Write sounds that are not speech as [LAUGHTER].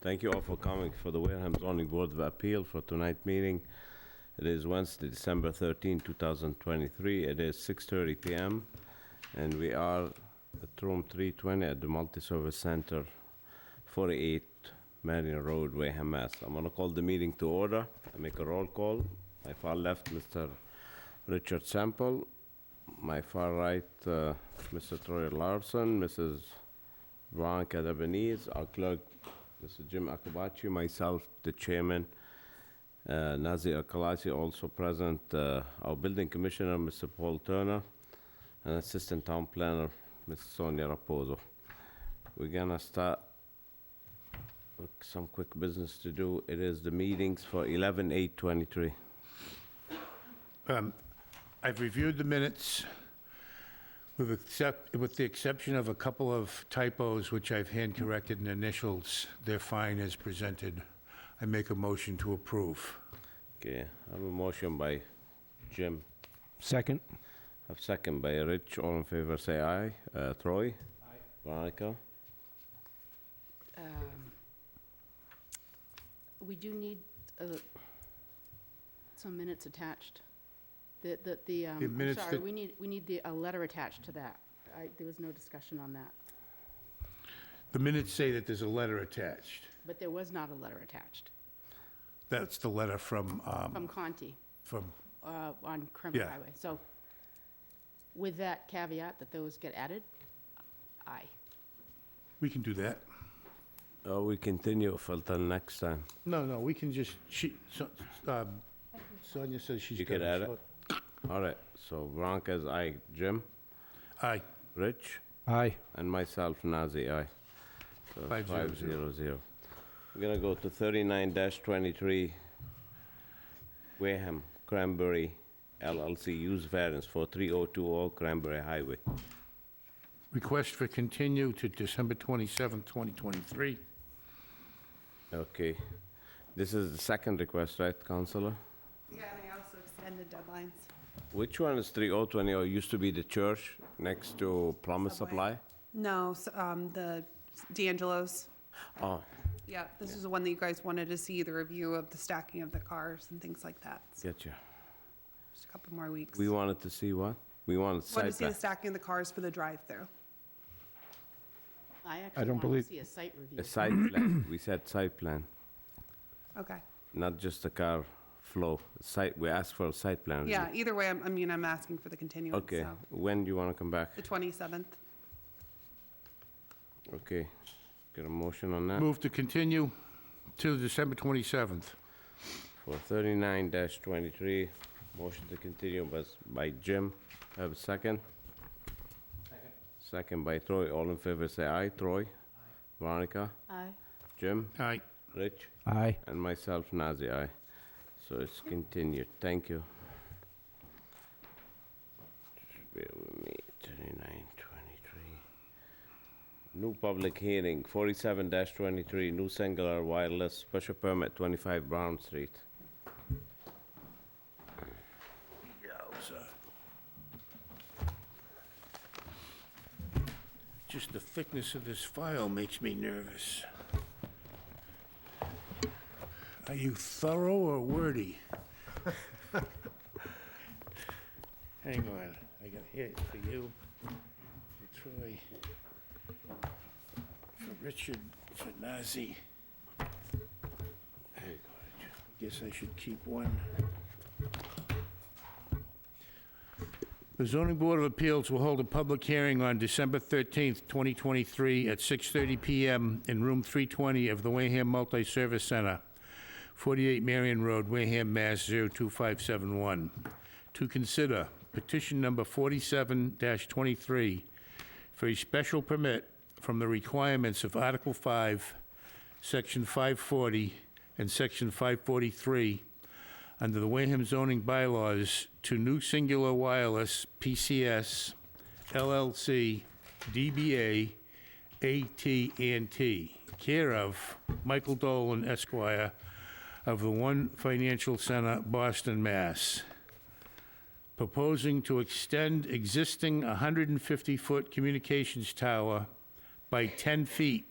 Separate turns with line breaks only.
Thank you all for coming for the Wareham Zoning Board of Appeal for tonight's meeting. It is Wednesday, December 13, 2023. It is 6:30 PM, and we are at room 320 at the Multi-Service Center, 48 Marion Road, Wareham, Mass. I'm gonna call the meeting to order I make a roll call. My far left, Mr. Richard Sample. My far right, uh, Mr. Troy Larson, Mrs. Veronica Debonese, our clerk, Mr. Jim Akabachi, myself, the chairman, uh, Nazir Akalasi, also present, uh, our building commissioner, Mr. Paul Turner, and assistant town planner, Ms. Sonia Raposo. We're gonna start with some quick business to do. It is the meetings for 11/8/23.
Um, I've reviewed the minutes with except, with the exception of a couple of typos, which I've hand corrected and initials. They're fine as presented. I make a motion to approve.
Okay, I have a motion by Jim,
Second.
I have second by Rich. All in favor, say aye. Uh, Troy? Aye. Veronica?
um, We do need uh, some minutes attached. The, the, the, um,
The
I'm
minutes
sorry,
that-
we need, we need the, a letter attached to that. I, there was no discussion on that,
The minutes say that there's a letter attached.
but there was not a letter attached
That's the letter from,
from
um,
Conti
from,
uh, on Kermit
Yeah.
Highway. So with that caveat that those get added, aye.
we can do that.
Uh, we continue for till next time.
No, no, we can just, she, so- um, Sonia says she's.
You can
got
add it. All right, so Veronica's aye. Jim?
Aye,
Rich?
Aye.
And myself, Nazir, aye. So it's
Five zero zero.
zero. We're gonna go to 39-23 Wareham Cranberry LLC use variance for 3020 Cranberry Highway.
request for continue to December 27th, 2023.
Okay. This is the second request, right, Counselor?
Yeah, and I also extended deadlines.
Which one is 3020? It used to be the church next to Promise Supply?
Subway. No, s- um, the D'Angelo's,
Oh,
yeah, this is the one that you guys wanted to see, the review of the stacking of the cars and things like that. So
getcha.
Just a couple more weeks.
We wanted to see what? We wanted
Want to
site
see the
plan.
stacking of the cars for the drive-through.
I
don't
actually want to
believe-
see a site review.
A site plan. [CLEARS THROAT] We said site plan,
Okay.
not just the car flow. Site, we asked for a site plan. review.
Yeah, either way, I'm- I mean, I'm asking for the continuance,
Okay,
so,
when do you want to come back?
the 27th.
Okay, get a motion on that
Move to continue to December 27th.
for thirty-nine twenty-three. Motion to continue by, by Jim. Have a second? Second by Troy. All in favor, say aye. Troy? Veronica?
Aye.
Jim?
Aye.
Rich?
Aye.
And myself, Nazir, aye. So it's continued, thank you. Just Bear with me, thirty-nine, twenty-three. New public hearing, forty-seven twenty-three, new singular wireless special permit, twenty-five Brown Street.
Just the thickness of this file makes me nervous. Are you thorough or wordy? Hang on, I got hit for you, for Troy, for Richard, for Nazi. Guess I should keep one. The zoning board of appeals will hold a public hearing on December 13th, 2023, at 6:30 PM in room 320 of the Wareham Multi-Service Center, 48 Marion Road, Wareham, Mass. 02571, to consider petition number 47-23 for a special permit from the requirements of Article 5, Section 540 and Section 543 under the Wareham zoning bylaws to New Singular Wireless PCS LLC DBA AT&T, care of Michael Dolan Esquire of the One Financial Center, Boston, Mass. Proposing to extend existing 150-foot communications tower by 10 feet